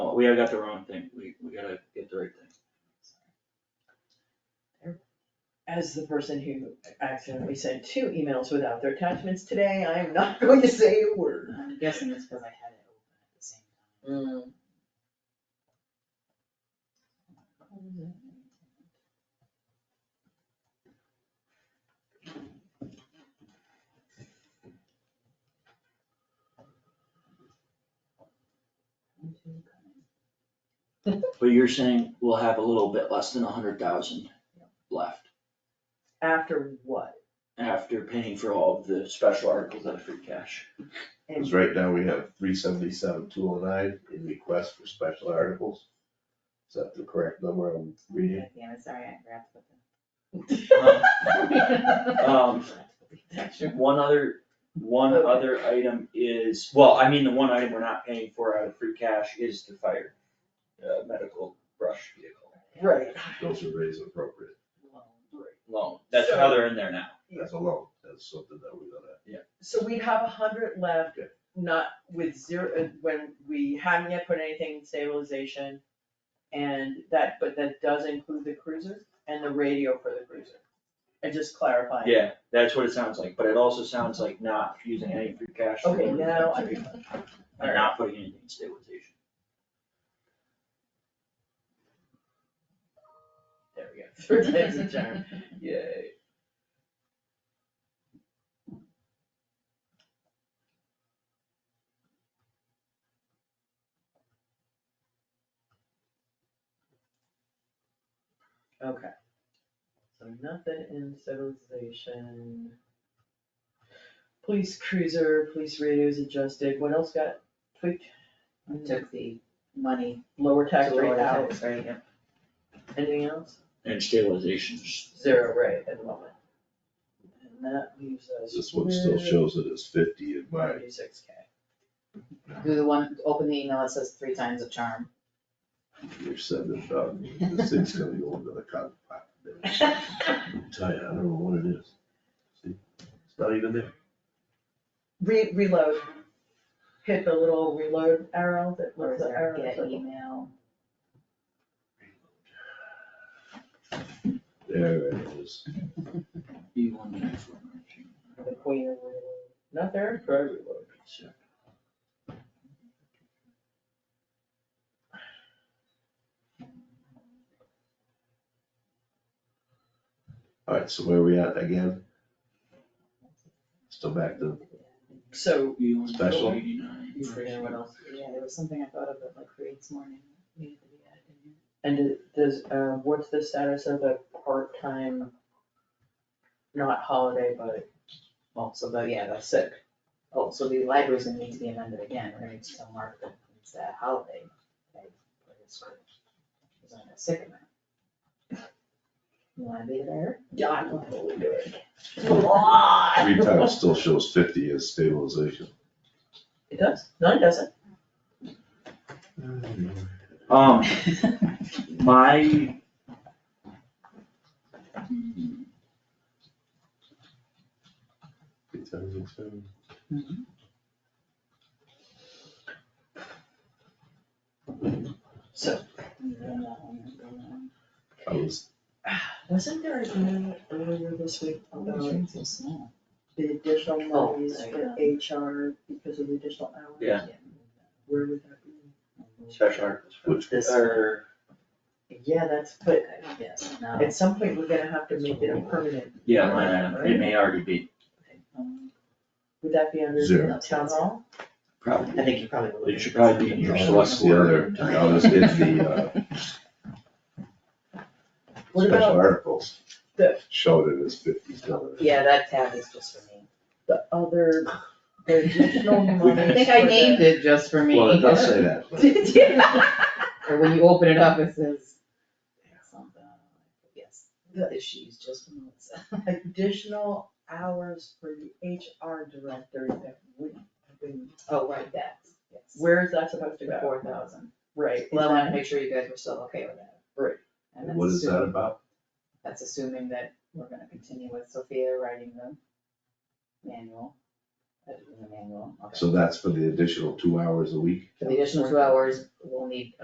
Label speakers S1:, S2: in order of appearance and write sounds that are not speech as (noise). S1: Oh, we have got the wrong thing, we, we gotta get the right thing.
S2: As the person who accidentally sent two emails without their attachments today, I am not (laughs) going to say a word. Mm.
S3: I'm guessing it's because I had it open at the same time.
S1: But you're saying we'll have a little bit less than a hundred thousand left
S2: After what?
S1: after paying for all of the special articles out of free cash.
S4: Because right now we have three seventy-seven, two oh nine in request for special articles. Is that the correct number I'm reading?
S3: God Damn it, sorry, I forgot to put
S2: (laughs)
S1: Um,
S3: that.
S1: One other, one other item is, well, I mean, the one item we're not paying for out of free cash is the fire, uh, medical brush vehicle
S2: Right.
S4: Those are raised appropriate.
S1: loan. That's how they're in there now.
S4: That's a loan. That's something that we're gonna,
S2: So we have a hundred left,
S4: Okay.
S2: not with zero, uh, when we haven't yet put anything in stabilization. And that, but that does include the cruiser and the radio for the cruiser. And just clarifying.
S1: Yeah, that's what it sounds like, but it also sounds like not using any free cash. for
S2: Okay,
S1: everything.
S2: now I-
S1: And not putting anything in stabilization.
S2: There we go. (laughs) Third time's a charm.
S1: Yay.
S2: Okay. So nothing in stabilization. Police cruiser, police radios adjusted, what else got tweaked?
S3: Took the money.
S2: Lower
S3: to
S2: tax rate
S3: lower
S2: out,
S3: tax rate, yep.
S2: anything else?
S1: And stabilizations.
S2: Zero rate at the moment. And that leaves us.
S4: this one still
S2: with
S4: shows it as fifty in my,
S2: 36K.
S3: Do the one, open the email that says three times a charm.
S4: you're sending it out. This thing's gonna go into the cotton pot. I'm telling you, I don't know what it is. See, It's not even there.
S2: (laughs) Re- reload. Hit the little reload arrow that
S3: Or
S2: looks
S3: is
S2: the
S3: there
S2: arrow.
S3: get
S2: that-
S3: email?
S4: There it is.
S1: You want the next one, aren't you?
S2: The queen of reload. Not there, for reload.
S1: Sure.
S4: Alright, so where are we at again? Still back to,
S2: So,
S1: You want the
S4: Special.
S1: 89.
S2: you forget what else?
S3: Yeah, there was something I thought of that like reads morning. needed to be added in here.
S2: And it- does, uh, what's the status of the part-time, not holiday, but
S3: Also, though, yeah, that's sick. Oh, so the libraries gonna need to be amended again, we're gonna need to still mark that it's that holiday. like, for this group. It's on a sick amount. You wanna be there? (laughs)
S2: Yeah, I
S3: will
S2: totally do it.
S4: Oh, three times still shows fifty as stabilization.
S2: It does, no, it doesn't.
S1: Um, my.
S4: Three times is seven.
S2: So,
S4: I was,
S2: wasn't there a meeting earlier this week about
S3: so small.
S2: the additional
S1: Oh,
S2: monies
S1: there you
S2: for HR because of the additional hours?
S1: Yeah.
S2: Where would that be?
S1: Special articles.
S4: which,
S2: This,
S1: Or,
S2: yeah, that's, but
S3: Yes, no.
S2: at some point, we're gonna have to make it a permanent,
S1: yeah, line item, it may already be,
S2: would that be under
S4: Zero.
S2: town hall?
S1: probably,
S3: I think you probably. will.
S1: it should probably be in your select
S4: the other,
S1: board.
S4: I was (laughs) in the, uh,
S2: What
S4: special
S2: about
S4: articles.
S2: the-
S4: Showed it as fifty dollars.
S3: Yeah, that tab is just for me.
S2: the other, the
S3: (laughs)
S1: (laughs)
S2: additional
S1: We-
S2: monies?
S1: I
S2: for the-
S3: it just for
S4: Well, it does say that, but
S3: Did you? Or when you open it up, it says. something. Yes, the issues just for Melissa.
S2: additional hours for the HR director that would have been,
S3: Oh, right, that, yes.
S2: where is that supposed to go?
S3: Four thousand.
S2: Right,
S3: Well, I wanted to make sure you guys were still okay with that.
S2: Right.
S3: And that's
S4: what is that
S3: assuming-
S4: about?
S3: That's assuming that we're gonna continue with Sophia writing the manual, editing the manual, okay.
S4: So that's for the additional two hours a week?
S3: For the additional two hours, we'll need